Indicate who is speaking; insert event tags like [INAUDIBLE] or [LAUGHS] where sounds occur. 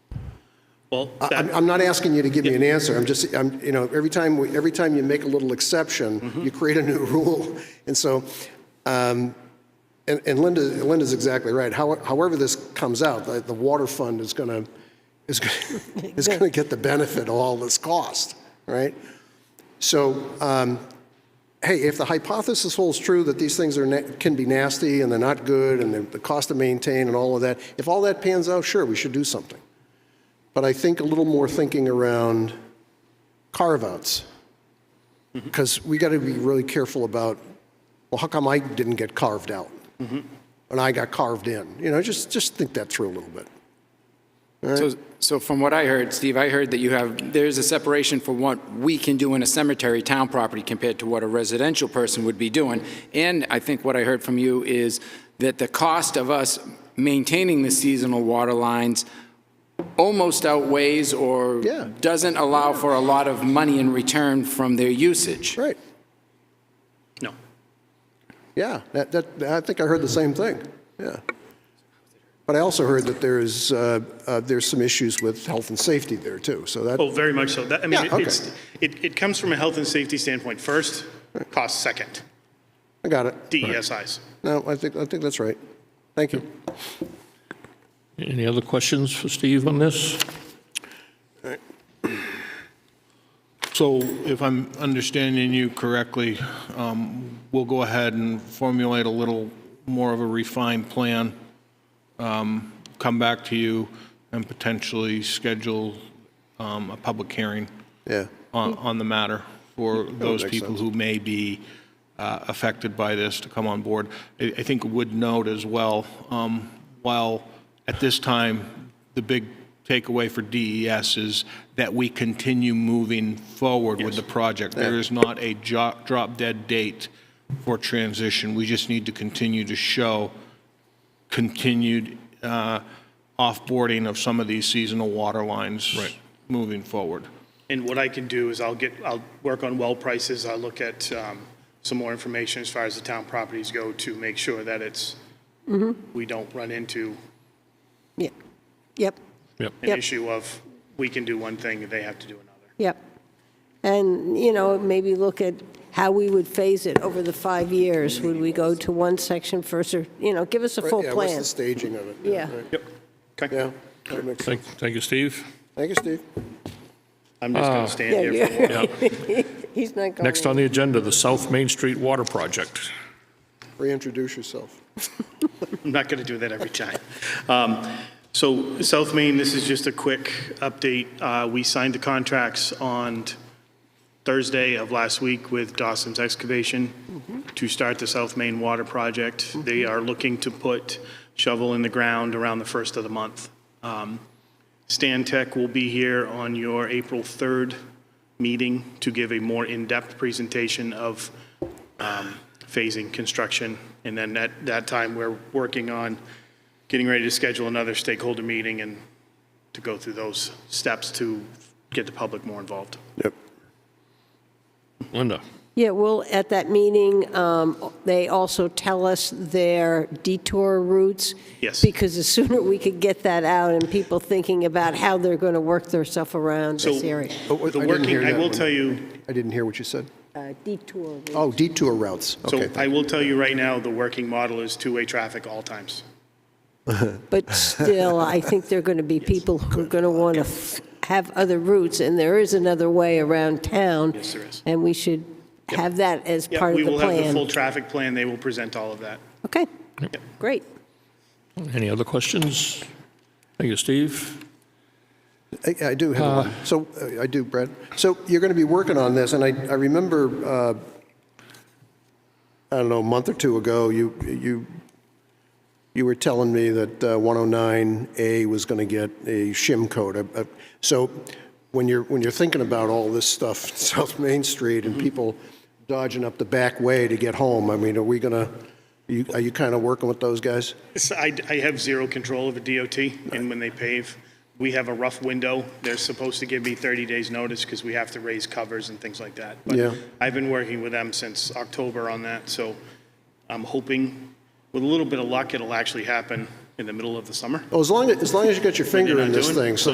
Speaker 1: Well,
Speaker 2: I'm,
Speaker 1: that-
Speaker 2: I'm not asking you to give me an answer, I'm just, I'm, you know, every time, we- every time you make a little exception, you create a new [LAUGHS] rule, and so, um, and and Linda, Linda's exactly right, How- however this comes out, the, the water fund is gonna, is gonna, is gonna get the benefit of all this cost, right? So, um, hey, if the hypothesis holds true that these things are, na- can be nasty, and they're not good, and they're- the cost to maintain and all of that, if all that pans out, sure, we should do something. But I think a little more thinking around carve-outs.
Speaker 1: Mm-hmm.
Speaker 2: Because we got to be really careful about, well, how come I didn't get carved out?
Speaker 1: Mm-hmm.
Speaker 2: And I got carved in? You know, just, just think that through a little bit.
Speaker 3: So, so from what I heard, Steve, I heard that you have, there's a separation for what we can do in a cemetery town property compared to what a residential person would be doing. And I think what I heard from you is that the cost of us maintaining the seasonal water lines almost outweighs or
Speaker 2: Yeah.
Speaker 3: doesn't allow for a lot of money in return from their usage.
Speaker 2: Right,
Speaker 1: no.
Speaker 2: yeah, that, that, I think I heard the same thing, yeah. But I also heard that there is, uh, uh, there's some issues with health and safety there, too, so that,
Speaker 1: Oh, very much so. That, I mean,
Speaker 2: Yeah, okay.
Speaker 1: it's, it, it comes from a health and safety standpoint first, cost second, E
Speaker 2: I got it.
Speaker 1: DESIs.
Speaker 2: No, I think, I think that's right. Thank you.
Speaker 4: Any other questions for Steve on this?
Speaker 5: So if I'm understanding you correctly, um, we'll go ahead and formulate a little more of a refined plan, um, come back to you, and potentially schedule um, a public hearing
Speaker 2: Yeah,
Speaker 5: on, on the matter for those
Speaker 2: makes
Speaker 5: people
Speaker 2: sense.
Speaker 5: who may be uh, affected by this to come on board. I, I think would note as well, um, while at this time, the big takeaway for DES is that we continue moving forward with the project. There is not a jo- drop-dead date for transition. We just need to continue to show continued uh, offboarding of some of these seasonal water lines
Speaker 4: Right.
Speaker 5: moving forward.
Speaker 1: And what I can do is I'll get, I'll work on well prices, I'll look at um, some more information as far as the town properties go to make sure that it's, we don't run into
Speaker 6: Yeah. Yep,
Speaker 4: Yep.
Speaker 1: an
Speaker 6: Yep.
Speaker 1: issue of, we can do one thing, they have to do another.
Speaker 6: yep. And, you know, maybe look at how we would phase it over the five years. Would we go to one section first, or, you know, give us a full
Speaker 2: yeah, what's
Speaker 6: plan.
Speaker 2: the staging of it?
Speaker 6: Yeah.
Speaker 2: right.
Speaker 1: Yep. Okay.
Speaker 2: Yeah, that makes sense.
Speaker 4: Thank, thank you, Steve.
Speaker 2: Thank you, Steve.
Speaker 1: I'm just going to stand
Speaker 6: Yeah,
Speaker 1: here for a
Speaker 6: yeah.
Speaker 4: Yeah.
Speaker 6: [LAUGHS] He's not going.
Speaker 4: Next on the agenda, the South Main Street Water Project.
Speaker 2: Reintroduce yourself.
Speaker 1: [LAUGHS] I'm not going to do that every time. Um, So South Main, this is just a quick update. Uh, We signed the contracts on Thursday of last week with Dawson's Excavation to start the South Main Water Project. They are looking to put shovel in the ground around the first of the month. Um, Stan Tech will be here on your April 3rd meeting to give a more in-depth presentation of um, phasing construction. And then at that time, we're working on getting ready to schedule another stakeholder meeting and to go through those steps to get the public more involved.
Speaker 2: Yep.
Speaker 4: Linda?
Speaker 6: Yeah, well, at that meeting, um, they also tell us their detour routes.
Speaker 1: Yes.
Speaker 6: Because the sooner we could get that out and people thinking about how they're going to work themselves around this
Speaker 1: So-
Speaker 6: area.
Speaker 2: Oh, wait,
Speaker 1: The
Speaker 2: I didn't
Speaker 1: working-
Speaker 2: hear
Speaker 1: I
Speaker 2: that
Speaker 1: will
Speaker 2: one.
Speaker 1: tell you-
Speaker 2: I didn't hear what you said.
Speaker 6: Uh, Detour routes.
Speaker 2: Oh, detour routes.
Speaker 1: So
Speaker 2: Okay.
Speaker 1: I will tell you right now, the working model is two-way traffic all times. [LAUGHS]
Speaker 6: But still, I think there are going to be people who are going to want to have other routes, and there is another way around town.
Speaker 1: Yes, there is.
Speaker 6: And we should have that as
Speaker 1: Yep,
Speaker 6: part of the
Speaker 1: We will have the full
Speaker 6: plan.
Speaker 1: traffic plan. They will present all of that.
Speaker 6: Okay, great.
Speaker 4: Any other questions? Thank you, Steve.
Speaker 2: I I do have one. So, uh, I do, Brad. So you're going to be working on this, and I, I remember, uh, I don't know, a month or two ago, you, you, you were telling me that uh, 109A was going to get a shim coat. Uh, uh, So when you're, when you're thinking about all this stuff, [LAUGHS] South Main Street and people dodging up the back way to get home, I mean, are we going to, are you kind of working with those guys?
Speaker 1: So I, I have zero control of a DOT, and when they pave, we have a rough window. They're supposed to give me 30 days' notice because we have to raise covers and things like that. But
Speaker 2: Yeah.
Speaker 1: I've been working with them since October on that, so I'm hoping, with a little bit of luck, it'll actually happen in the middle of the summer.
Speaker 2: Oh, as long, as long as you got your finger in
Speaker 1: not
Speaker 2: this
Speaker 1: doing-
Speaker 2: thing, so